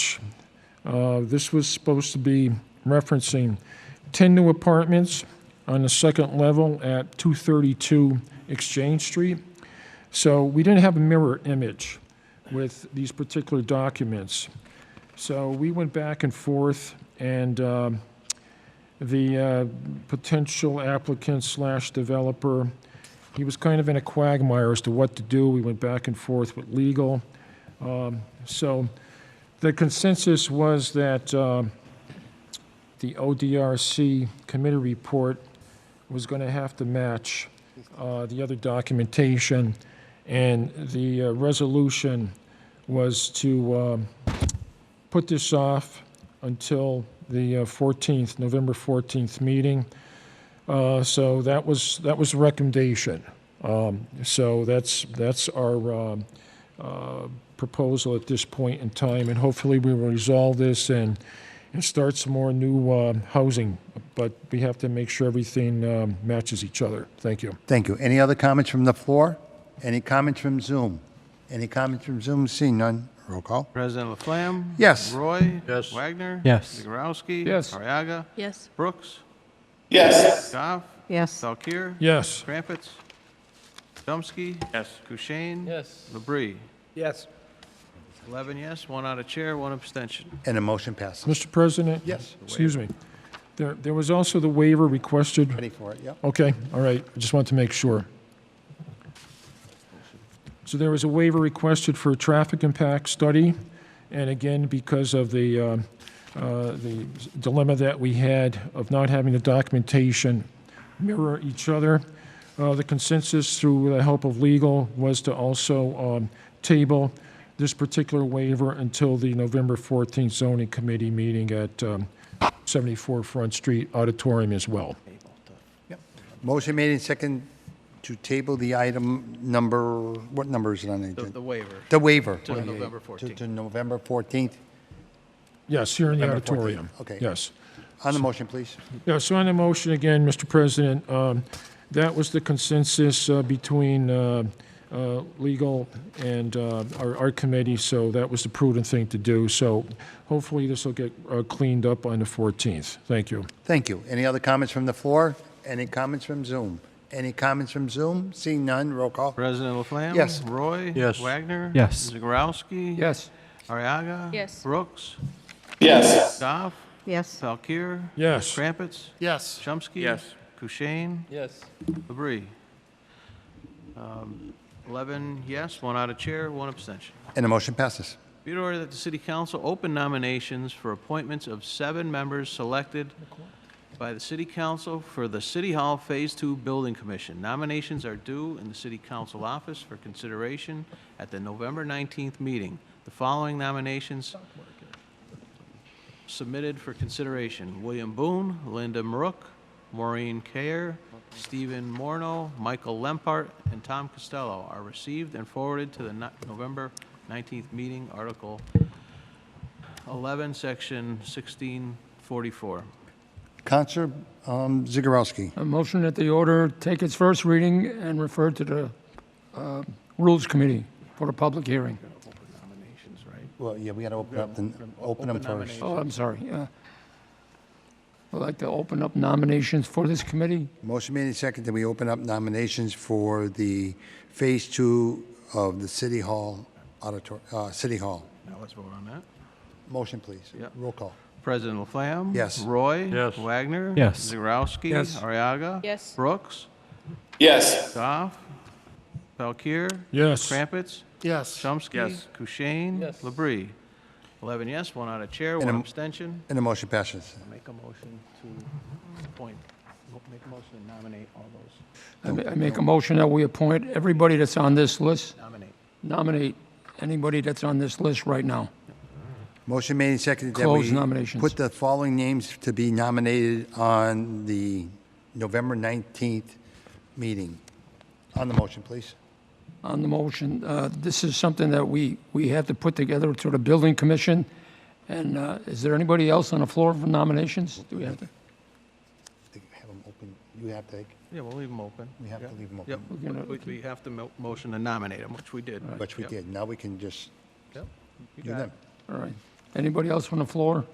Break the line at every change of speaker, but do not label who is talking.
Uh, This was supposed to be referencing 10 new apartments on the second level at 232 Exchange Street. So we didn't have a mirror image with these particular documents. So we went back and forth, and um, the uh, potential applicant slash developer, he was kind of in a quagmire as to what to do. We went back and forth with legal. Um, So the consensus was that uh, the ODRC committee report was going to have to match uh, the other documentation, and the uh, resolution was to um, put this off until the uh, 14th, November 14th meeting. Uh, So that was, that was the recommendation. Um, So that's, that's our um, uh, proposal at this point in time, and hopefully we will resolve this and, and start some more new uh, housing, but we have to make sure everything um, matches each other. Thank you.
Thank you. Any other comments from the floor? Any comments from Zoom? Any comments from Zoom? Seeing none. Roll call.
President Laflamme?
Yes.
Roy? Yes. Wagner?
Yes.
Zegarowski?
Yes.
Ariaga?
Yes.
Brooks? Yes. Goff?
Yes.
Valkir?
Yes,
Crumpets? Chomsky? Yes. Kushein?
Yes.
Labrie?
Yes.
11 yes, one out of chair, one abstention.
And the motion passes.
Mr. President?
Yes.
Excuse me. There, there was also the waiver requested.
Ready for it, yep.
Okay, all right, I just want to make sure. So there was a waiver requested for a traffic impact study, and again, because of the, uh, uh, the dilemma that we had of not having the documentation mirror each other, uh, the consensus through the help of legal was to also um, table this particular waiver until the November 14th zoning committee meeting at um, 74 Front Street Auditorium as well.
Motion made and second to table the item number, what number is it on the
The-
agenda?
The waiver.
The waiver.
To November
To-
14th.
To November 14th.
Yes, here in the
November 14th,
auditorium.
okay.
Yes.
On the motion, please.
Yeah, so on the motion again, Mr. President, um, that was the consensus uh, between uh, uh, legal and uh, our our committee, so that was the prudent thing to do. So hopefully this will get uh, cleaned up on the 14th. Thank you.
Thank you. Any other comments from the floor? Any comments from Zoom? Any comments from Zoom? Seeing none. Roll call.
President Laflamme?
Yes.
Roy?
Yes.
Wagner?
Yes.
Zegarowski?
Yes.
Ariaga?
Yes.
Brooks?
Yes.
Goff?
Yes.
Valkir?
Yes.
Crumpets?
Yes.
Chomsky?
Yes.
Kushein?
Yes.
Labrie? Um, 11 yes, one out of chair, one abstention.
And the motion passes.
Be it ordered that the city council open nominations for appointments of seven members selected by the city council for the City Hall Phase Two Building Commission. Nominations are due in the city council office for consideration at the November 19th meeting. The following nominations submitted for consideration. William Boone, Linda Marook, Maureen Kerr, Stephen Morno, Michael Lempart, and Tom Costello are received and forwarded to the no- November 19th meeting, Article 11, Section 1644.
Counselor um, Zegarowski.
A motion that the order take its first reading and refer to the uh, Rules Committee for a public hearing.
Well, yeah, we got to open up, the- open them first.
Oh, I'm sorry. yeah. I'd like to open up nominations for this committee.
Motion made and second that we open up nominations for the Phase Two of the City Hall Auditor, uh, City Hall.
Now let's vote on that.
Motion, please.
Yep.
Roll call.
President Laflamme?
Yes.
Roy? Yes. Wagner?
Yes.
Zegarowski?
Yes.
Ariaga?
Yes.
Brooks?
Yes.
Goff? Valkir?
Yes.
Crumpets?
Yes.
Chomsky.
Yes.
Kushein.
Yes.
Labrie. 11 yes, one out of chair,
And
one
a-
abstention.
And the motion passes.
Make a motion to appoint, make a motion to nominate all those,
I ma- I make a motion that we appoint everybody that's on this list,
nominate.
nominate anybody that's on this list right now.
Motion made and second that
Close
we
nominations.
put the following names to be nominated on the November 19th meeting. On the motion, please.
on the motion. uh, This is something that we, we have to put together through the building commission. And uh, is there anybody else on the floor for nominations? Do we have to,
Have them open. You have to,
Yeah, we'll leave them open.
we have to
Yeah.
leave them
Yep,
open,
We're gonna-
we, we have to mo- motion to nominate them, which we did.
which we
Yep.
did. Now we can just
Yep. You
do
got
them.
it.
all right. Anybody else on the floor?